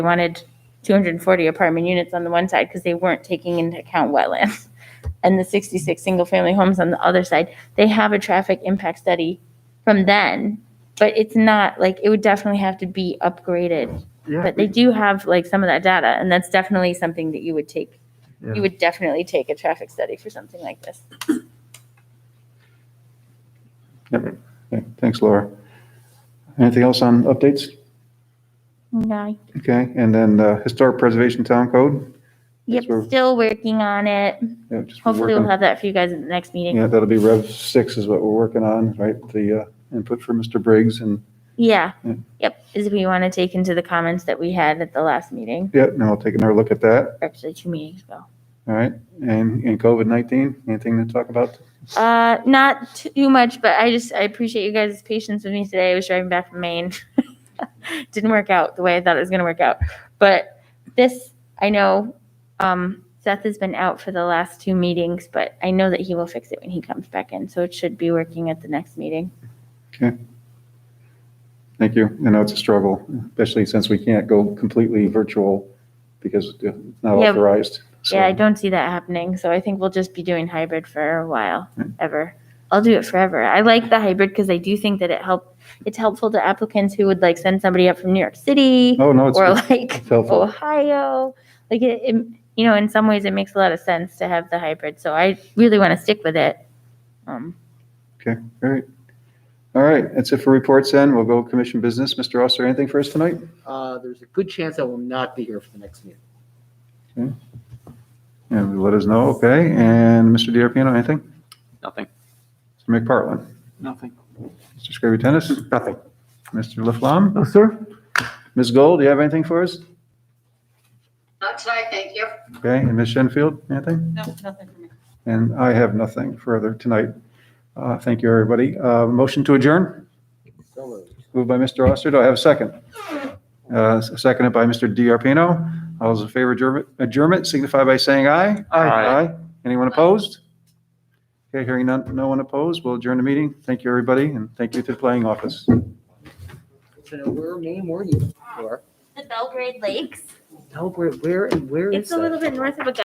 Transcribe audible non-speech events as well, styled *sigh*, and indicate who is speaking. Speaker 1: they wanted 240 apartment units on the one side because they weren't taking into account wetlands. *laughs* And the 66 single-family homes on the other side, they have a traffic impact study from then, but it's not, like, it would definitely have to be upgraded.
Speaker 2: Yeah,
Speaker 1: But they do have, like, some of that data, and that's definitely something that you would take,
Speaker 2: Yeah.
Speaker 1: you would definitely take a traffic study for something like this.
Speaker 3: Okay, Thanks, Laura. Anything else on updates?
Speaker 1: Okay.
Speaker 3: Okay, and then the Historic Preservation Town Code?
Speaker 1: Yep,
Speaker 3: Sure.
Speaker 1: still working on it.
Speaker 3: Yeah, just we're
Speaker 1: Hopefully we'll
Speaker 3: working-
Speaker 1: have that for you guys at the next meeting.
Speaker 3: Yeah, that'll be Rev 6 is what we're working on, right? The uh, input for Mr. Briggs and,
Speaker 1: Yeah,
Speaker 3: Yeah.
Speaker 1: yep, is if we want to take into the comments that we had at the last meeting,
Speaker 3: yeah, and I'll take another look at that,
Speaker 1: or actually two meetings ago.
Speaker 3: all right? And, and COVID-19, anything to talk about?
Speaker 1: Uh, not too much, but I just, I appreciate you guys' patience with me today. I was driving back from Maine. *laughs* Didn't work out the way I thought it was gonna work out. But this, I know, um, Seth has been out for the last two meetings, but I know that he will fix it when he comes back in, so it should be working at the next meeting.
Speaker 3: Thank you. I know it's a struggle, especially since we can't go completely virtual because it's not
Speaker 1: Yeah.
Speaker 3: authorized. So,
Speaker 1: Yeah, I don't see that happening. So I think we'll just be doing hybrid for a while, ever. I'll do it forever. I like the hybrid because I do think that it help. It's helpful to applicants who would like send somebody up from New York City
Speaker 3: Oh, no, it's
Speaker 1: or
Speaker 3: it's
Speaker 1: like
Speaker 3: helpful.
Speaker 1: Ohio. Like it, it, you know, in some ways, it makes a lot of sense to have the hybrid. So I really want to stick with it. Um,
Speaker 3: Great. All right, that's it for reports then. We'll go commission business. Mr. Oster, anything for us tonight?
Speaker 2: uh, there's a good chance I will not be here for the next meeting.
Speaker 3: And let us know, okay? And Mr. DiRapino, anything?
Speaker 4: Nothing.
Speaker 3: Mr. McPartlin?
Speaker 4: Nothing.
Speaker 3: Mr. Scrivby Tennis?
Speaker 4: Nothing.
Speaker 3: Mr. Laflamme?
Speaker 2: No, sir.
Speaker 3: Ms. Gold, do you have anything for us?
Speaker 5: Not tonight, thank you.
Speaker 3: Okay, and Ms. Shenfield, anything?
Speaker 6: No, nothing for me.
Speaker 3: And I have nothing further tonight. Uh, Thank you, everybody. Uh, Motion to adjourn,
Speaker 2: So uh, moved.
Speaker 3: moved by Mr. Oster. Do I have a second? Uh, s- Seconded by Mr. DiRapino. All those in favor adjourn- adjournment signify by saying aye.
Speaker 4: Aye.
Speaker 3: Anyone opposed? Okay, hearing none, no one opposed, we'll adjourn the meeting. Thank you, everybody, and thank you to the playing office.
Speaker 2: So now where, name, where are you? Laura?
Speaker 1: the Belgrade Lakes.
Speaker 2: No, where, where, and where is that?
Speaker 1: bit north of Augusta.